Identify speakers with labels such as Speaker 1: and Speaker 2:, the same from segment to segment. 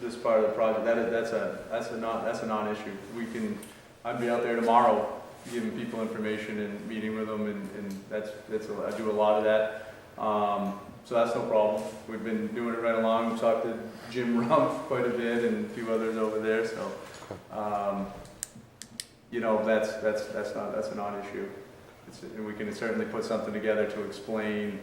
Speaker 1: this part of the project, that is, that's a, that's a non, that's a non-issue. We can, I'd be out there tomorrow giving people information and meeting with them and, and that's, that's, a- I do a lot of that. Um, so that's no problem. We've been doing it right along. We've talked to Jim Rumpf quite a bit and a few others over there, so, um, you know, that's, that's, that's not, that's a non-issue. It's, and we can certainly put something together to explain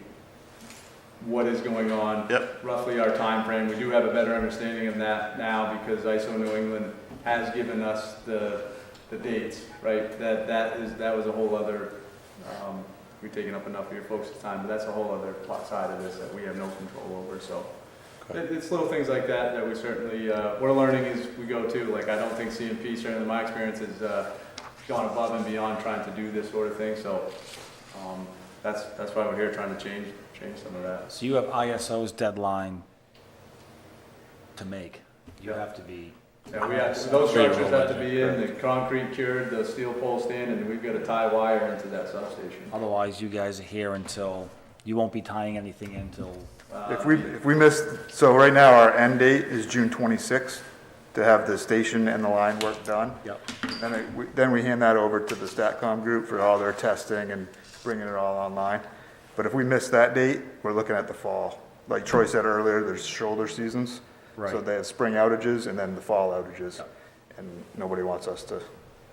Speaker 1: what is going on.
Speaker 2: Yep.
Speaker 1: Roughly our time frame. We do have a better understanding of that now because ISO New England has given us the, the dates, right? That, that is, that was a whole other, um, we've taken up enough of your folks' time, but that's a whole other plot side of this that we have no control over, so.
Speaker 2: Okay.
Speaker 1: It, it's little things like that that we certainly, uh, we're learning as we go too. Like, I don't think CMP, certainly in my experience, has, uh, gone above and beyond trying to do this sort of thing, so, um, that's, that's why we're here, trying to change, change some of that.
Speaker 3: So you have ISO's deadline to make. You
Speaker 1: Yeah.
Speaker 3: have to be,
Speaker 1: Yeah, we have, those structures have to be in, the concrete cured, the steel pole standing, and we've gotta tie wire into that substation.
Speaker 3: otherwise you guys are here until, you won't be tying anything until,
Speaker 1: Uh,
Speaker 4: If we, if we miss, so right now, our end date is June 26th to have the station and the line work done.
Speaker 3: yep.
Speaker 4: Then it- we- Then we hand that over to the StatCom group for all their testing and bringing it all online. But if we miss that date, we're looking at the fall. Like Troy said earlier, there's shoulder seasons. So
Speaker 3: Right.
Speaker 4: they have spring outages and then the fall outages. And nobody wants us to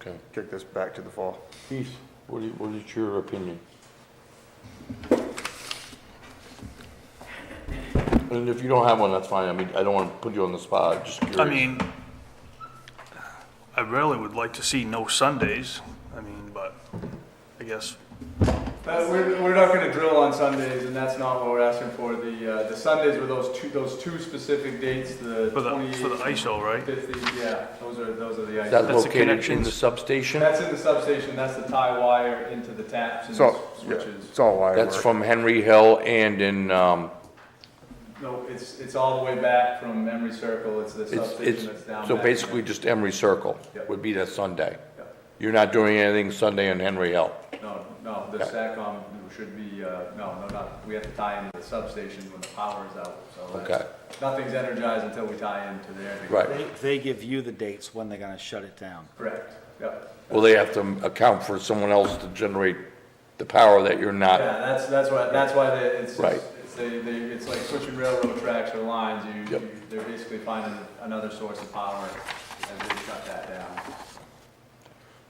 Speaker 2: Okay.
Speaker 4: kick this back to the fall.
Speaker 2: Keith, what is, what is your opinion? And if you don't have one, that's fine. I mean, I don't want to put you on the spot, I'm just curious.
Speaker 5: I mean, I really would like to see no Sundays, I mean, but I guess,
Speaker 1: Uh, we're, we're not gonna drill on Sundays, and that's not what we're asking for. The, uh, the Sundays were those two, those two specific dates, the
Speaker 5: for the, for the
Speaker 1: twenty-eighth and
Speaker 5: ISO, right?
Speaker 1: fifty, yeah, those are, those are the
Speaker 2: Is that
Speaker 1: ISO.
Speaker 5: the
Speaker 2: located in the
Speaker 5: connections.
Speaker 2: substation?
Speaker 1: That's in the substation, that's the tie wire into the taps and
Speaker 4: It's all, yeah,
Speaker 1: switches.
Speaker 4: it's all wire
Speaker 2: That's
Speaker 4: work.
Speaker 2: from Henry Hill and in, um,
Speaker 1: No, it's, it's all the way back from Emery Circle, it's the
Speaker 2: it's,
Speaker 1: substation that's down.
Speaker 2: it's, so
Speaker 1: back.
Speaker 2: basically just Emery Circle
Speaker 1: Yep.
Speaker 2: would be that Sunday.
Speaker 1: Yep.
Speaker 2: You're not doing anything Sunday in Henry Hill.
Speaker 1: No, no, the SACOM should be, uh, no, no, not, we have to tie into the substation when the power is out, so. that's- Nothing's energized until we tie into there.
Speaker 2: Right.
Speaker 3: They, they give you the dates when they're gonna shut it down.
Speaker 1: Correct, yep.
Speaker 2: Well, they have to account for someone else to generate the power that you're not
Speaker 1: Yeah, that's, that's why, that's why they, it's,
Speaker 2: Right.
Speaker 1: just- it's, they, they, it's like switching railroad tracks or lines, you,
Speaker 2: Yep.
Speaker 1: you- they're basically finding another source of power as they shut that down.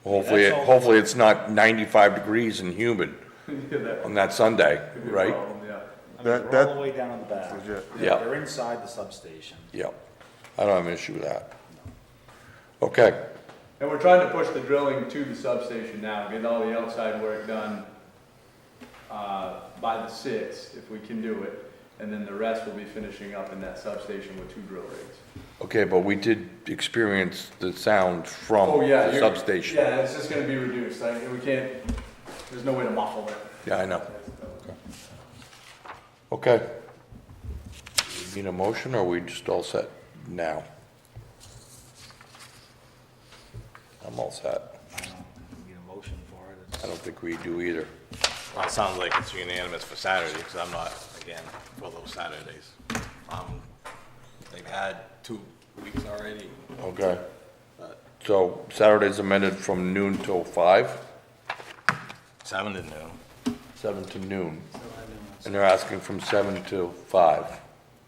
Speaker 2: Hopefully,
Speaker 3: That's all.
Speaker 2: hopefully it's not 95 degrees and humid
Speaker 1: Yeah, that
Speaker 2: on that Sunday,
Speaker 1: could be a
Speaker 2: right?
Speaker 1: problem, Yeah.
Speaker 3: I mean,
Speaker 4: That-
Speaker 3: they're all
Speaker 4: that-
Speaker 3: the way down on the back.
Speaker 4: Legit.
Speaker 2: Yeah.
Speaker 3: They're inside the substation.
Speaker 2: Yep. I don't have an issue with that. Okay,
Speaker 1: And we're trying to push the drilling to the substation now, get all the outside work done, uh, by the sixth, if we can do it. And then the rest will be finishing up in that substation with two drill rigs.
Speaker 2: okay, but we did experience the sound
Speaker 1: Oh,
Speaker 2: from
Speaker 1: yeah.
Speaker 2: the
Speaker 1: you're-
Speaker 2: substation.
Speaker 1: Yeah, it's just gonna be reduced, like, we can't, there's no way to muffle it.
Speaker 2: Yeah, I know. Okay. Need a motion, or are we just all set now? I'm all set.
Speaker 3: I don't need a motion for it. It's-
Speaker 2: I don't think we do either.
Speaker 6: Well, it sounds like it's unanimous for Saturday, because I'm not, again, for those Saturdays. Um, they've had two weeks already, Uh,
Speaker 2: Okay.
Speaker 6: but
Speaker 2: So Saturday's amended from noon till five?
Speaker 6: seven to noon.
Speaker 2: seven to noon, and they're asking from seven to five.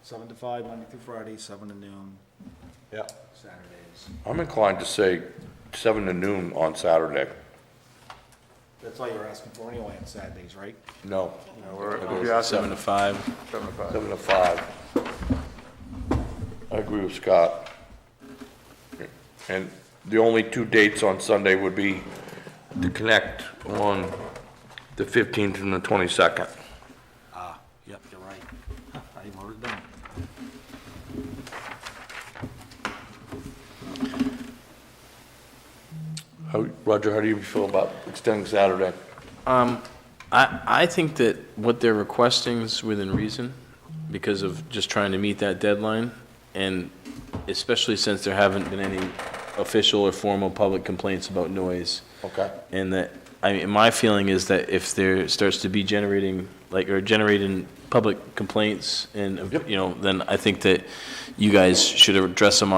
Speaker 3: Seven to five, Monday through Friday, seven to noon,
Speaker 6: Yep.
Speaker 3: Saturdays.
Speaker 2: I'm inclined to say seven to noon on Saturday.
Speaker 3: That's all you're asking for anyway on Saturdays, right?
Speaker 2: No,
Speaker 4: Yeah, we're- if you ask them,
Speaker 6: Seven to five.
Speaker 4: seven to five.
Speaker 2: seven to five. I agree with Scott. And the only two dates on Sunday would be to connect on the fifteenth and the twenty-second.
Speaker 3: Ah, yep, you're right. I wrote it down.
Speaker 2: How, Roger, how do you feel about extending Saturday?
Speaker 7: Um, I, I think that what they're requesting is within reason because of just trying to meet that deadline. And especially since there haven't been any official or formal public complaints about noise.
Speaker 2: Okay.
Speaker 7: And that
Speaker 1: I mean, my feeling is that if there starts to be generating, like, or generating public complaints and, you know, then I think that you guys should address them